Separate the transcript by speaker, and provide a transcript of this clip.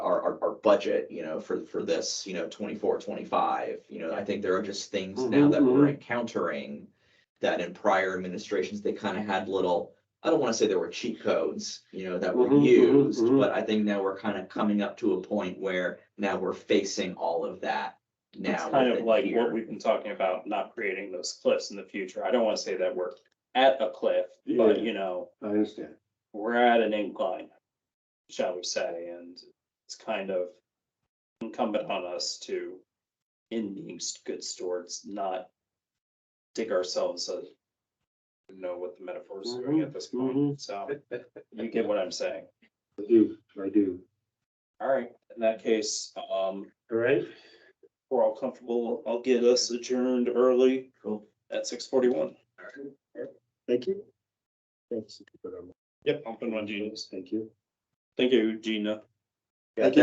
Speaker 1: budget, you know, for, for this, you know, 24, 25. You know, I think there are just
Speaker 2: Mm-hmm,
Speaker 1: things now
Speaker 3: Mhm,
Speaker 1: that we're
Speaker 3: mhm.
Speaker 1: encountering that in prior administrations, they kind of had little, I don't want to say there were cheat codes, you know, that
Speaker 2: Mm-hmm,
Speaker 1: were
Speaker 3: Mhm, mhm,
Speaker 1: used,
Speaker 3: mhm.
Speaker 1: but I think now we're kind of coming up to a point where now we're facing all of that
Speaker 2: It's
Speaker 1: now.
Speaker 2: kind of
Speaker 1: within
Speaker 2: like
Speaker 1: here.
Speaker 2: what we've been talking about, not creating those cliffs in the future. I don't want to say that we're at a cliff, but
Speaker 3: Yeah.
Speaker 2: you know,
Speaker 3: I understand.
Speaker 2: we're at an incline, shall we say, and it's kind of incumbent on us to, in being s- good stewards, not dig ourselves a, I don't know what the metaphor is doing at this
Speaker 3: Mhm,
Speaker 2: point, so you get what I'm saying.
Speaker 3: I do, I do.
Speaker 2: All right, in that case, um,
Speaker 3: All right,
Speaker 2: we're all comfortable. I'll get us adjourned early
Speaker 1: Cool.
Speaker 2: at six forty-one.
Speaker 3: thank you. Thanks.
Speaker 2: Yep, I'm putting on Gina's.
Speaker 3: Thank you.
Speaker 2: Thank you, Gina.
Speaker 3: Thank you.